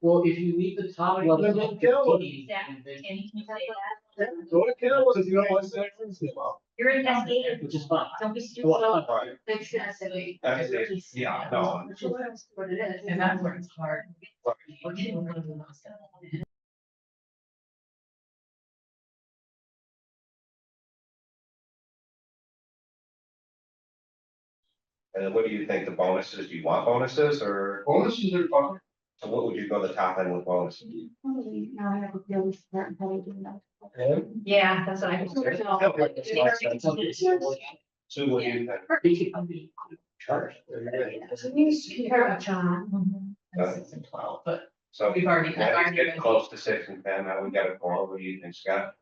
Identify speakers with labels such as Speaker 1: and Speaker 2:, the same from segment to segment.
Speaker 1: Well, if you leave the top level
Speaker 2: Then
Speaker 1: at
Speaker 2: go.
Speaker 1: 15, and then-
Speaker 3: Can you say that?
Speaker 2: What account was, you know, what's that? Well,
Speaker 3: You're investigating.
Speaker 1: Which is fine.
Speaker 3: Don't be stupid.
Speaker 1: Well,
Speaker 3: Fix that silly.
Speaker 4: That's it. Yeah, no.
Speaker 3: Which is What it is.
Speaker 5: And that's where it's hard.
Speaker 4: Right.
Speaker 5: We're getting one of the most.
Speaker 4: And then what do you think, the bonuses, do you want bonuses, or
Speaker 2: bonuses are fun.
Speaker 4: so what would you go the top end with bonuses?
Speaker 3: E
Speaker 6: Probably now I have a feeling it's not probably doing that.
Speaker 3: Yeah, that's what I was.
Speaker 1: So it's- well,
Speaker 4: So what do you think?
Speaker 1: they should come be charged.
Speaker 3: So we used to compare about John.
Speaker 5: And six and twelve, but
Speaker 4: So
Speaker 5: we've already, I've
Speaker 4: now it's
Speaker 5: already
Speaker 4: getting
Speaker 5: been.
Speaker 4: close to six and ten, now we gotta call, what do you think, Scott?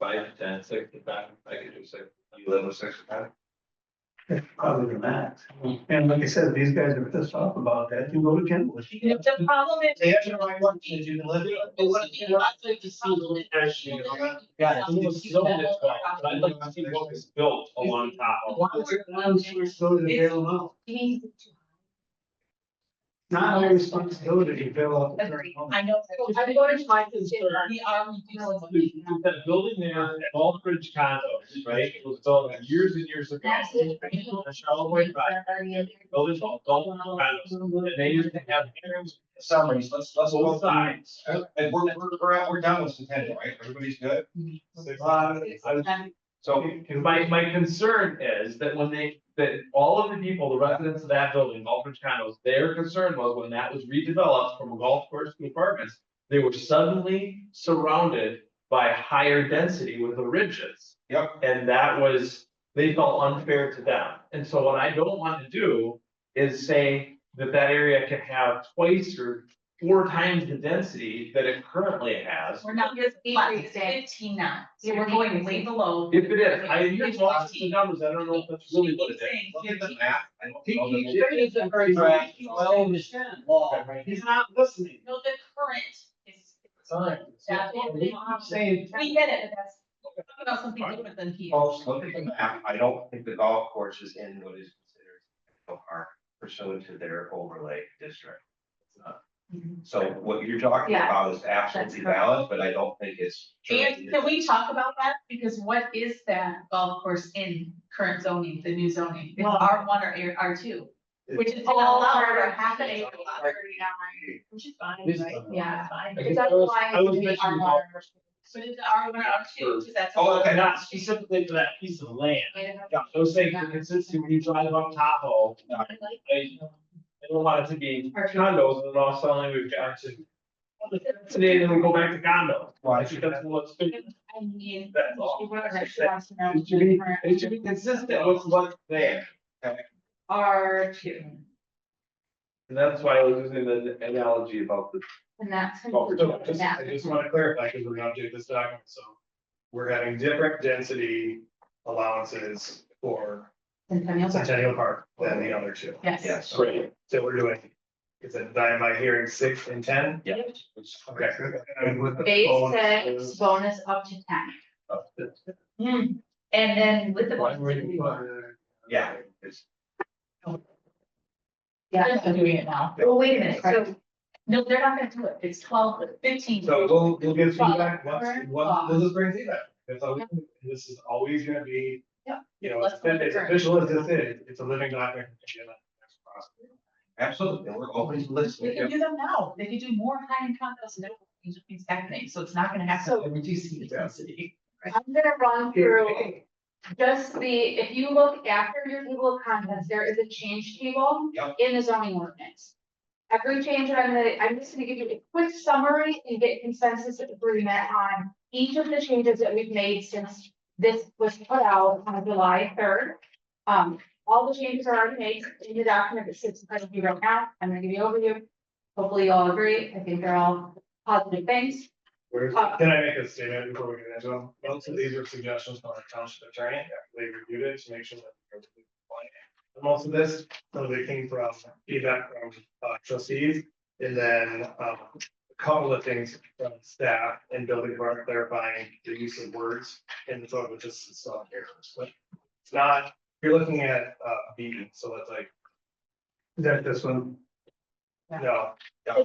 Speaker 2: Five, ten, six, five, I could do six.
Speaker 4: You live with six and ten?
Speaker 7: That's Probably the max. And like I said, these guys are pissed off about that. You go to Kentwood.
Speaker 3: The problem is.
Speaker 2: They actually like one, is you can live it.
Speaker 1: But what I- what I'd like to see is- Yeah,
Speaker 2: It was zoned this way, but I'd like to see what was built along top.
Speaker 1: Once- once we're-
Speaker 7: So they bail them out. Not our responsibility to bail out. the
Speaker 5: Agree.
Speaker 7: person.
Speaker 5: I know.
Speaker 1: Well, I go to my concern.
Speaker 5: We are reducing.
Speaker 2: There's That building there, at Old Bridge condos, right, it was built years and years ago.
Speaker 3: That's it.
Speaker 2: On Charlevoix Drive, buildings all, all condos, and they used to have hearings,
Speaker 4: Summaries, let's, let's.
Speaker 2: both sides.
Speaker 4: And we're, we're, we're out, we're done with Centennial, right? Everybody's good?
Speaker 2: Uh, I was
Speaker 4: So
Speaker 2: My, my concern is that when they, that all of the people, the residents of that building, Gulfbridge condos, their concern was when that was redeveloped from a golf course to apartments. They were suddenly surrounded by higher density with the ridges.
Speaker 4: Yep.
Speaker 2: And that was, they felt unfair to them. And so what I don't want to do is say that that area can have twice or four times the density that it currently has.
Speaker 5: We're not just
Speaker 3: Increase it.
Speaker 5: fifteen now.
Speaker 3: Yeah,
Speaker 5: So
Speaker 3: we're
Speaker 5: we're going way below.
Speaker 2: If it is, I, you just lost the numbers, I don't know if that's really what it is.
Speaker 4: look at the map. I don't know that-
Speaker 1: It's a very- well, the Shannon law, right?
Speaker 2: He's not listening.
Speaker 5: No, the current is. That's what we
Speaker 2: I'm saying.
Speaker 5: We get it, but that's, talk about something different than here.
Speaker 4: Folks, look at the map, I don't think the golf course is in what is considered a park pursuant to their overlay district. So what you're talking
Speaker 3: Yeah.
Speaker 4: about is absolutely
Speaker 3: That's correct.
Speaker 4: valid, but I don't think it's.
Speaker 5: And can we talk about that? Because what is that golf course in current zoning, the new zoning? It's
Speaker 3: Well-
Speaker 5: R one or R two, which is
Speaker 3: All
Speaker 5: all allowed
Speaker 3: part
Speaker 5: for
Speaker 3: of
Speaker 5: half an
Speaker 3: it.
Speaker 5: acre. lot.
Speaker 3: Which is fine,
Speaker 1: This-
Speaker 3: right? Yeah.
Speaker 1: I
Speaker 3: But
Speaker 1: think
Speaker 3: that's
Speaker 1: I was-
Speaker 3: why
Speaker 2: I was
Speaker 3: we
Speaker 2: mentioning
Speaker 3: are
Speaker 2: golf
Speaker 3: more-
Speaker 5: So it's R one or R two, because that's.
Speaker 4: Oh, okay.
Speaker 2: Not specifically for that piece of land.
Speaker 3: I don't
Speaker 2: Yeah,
Speaker 3: know.
Speaker 2: those things are consistent when you drive up uh, Tahoe. I, I don't want it to be condos and then all suddenly we've got to. Today, then we go back to condos.
Speaker 4: Why?
Speaker 2: I think that's what's, been-
Speaker 3: I mean,
Speaker 2: that's all.
Speaker 3: she wants her- she wants to know
Speaker 2: It should be,
Speaker 3: different-
Speaker 2: it should be consistent with what's there.
Speaker 3: R two,
Speaker 2: And that's why I was using the analogy about the
Speaker 3: and that's.
Speaker 8: So just, I just want to clarify, because we're gonna update this document, so we're having different density allowances for
Speaker 3: Centennial.
Speaker 8: Centennial Park than the other two.
Speaker 5: Yes.
Speaker 4: Yes.
Speaker 2: trade.
Speaker 8: So we're doing, is it, am I hearing six and ten?
Speaker 4: Yeah.
Speaker 8: Okay. And with the
Speaker 3: Base
Speaker 8: bonuses,
Speaker 3: six, bonus up to ten.
Speaker 4: Up
Speaker 3: Hmm, and then with the.
Speaker 7: Why were
Speaker 3: bonus,
Speaker 7: you, uh,
Speaker 4: Yeah, it's,
Speaker 3: Yeah,
Speaker 5: They're doing it now. Oh,
Speaker 3: well, wait a minute, so
Speaker 5: Right. No, they're not gonna do it. It's twelve, fifteen.
Speaker 8: so we'll, we'll give feedback, once, once, we'll just bring feedback, that's all we can do. this is always gonna be.
Speaker 5: Yeah.
Speaker 8: You know, it's it's official as this is, it's a living document. and that's possible.
Speaker 4: absolutely, and we're always
Speaker 5: They can
Speaker 4: listening.
Speaker 5: do them now. They could do more high-end condos now. These are things happening, so it's not gonna happen.
Speaker 3: So-
Speaker 5: to reducing the density.
Speaker 3: I'm gonna run through just the, if you look after your table of contents, there is a change table.
Speaker 4: Yep.
Speaker 3: In the zoning ordinance. Every change that I'm gonna, I'm just gonna give you a quick summary and get consensus agreement on each of the changes that we've made since this was put out on July third. Um, all the changes are already made in the document that sits in front of you right now. I'm gonna give you an overview. Hopefully you all agree. I think they're all positive things.
Speaker 8: Where-
Speaker 3: Uh,
Speaker 8: can I make a statement before we get into them? Most of these are suggestions from our township attorney, they reviewed it to make sure that. they're compliant. And Most of this, some of it came from feedback from uh, trustees, and then um, a couple of things from staff and building department clarifying the use of words in the photo, just is not here. But it's not, you're looking at uh, B, so that's like,
Speaker 7: Is that this one?
Speaker 8: no,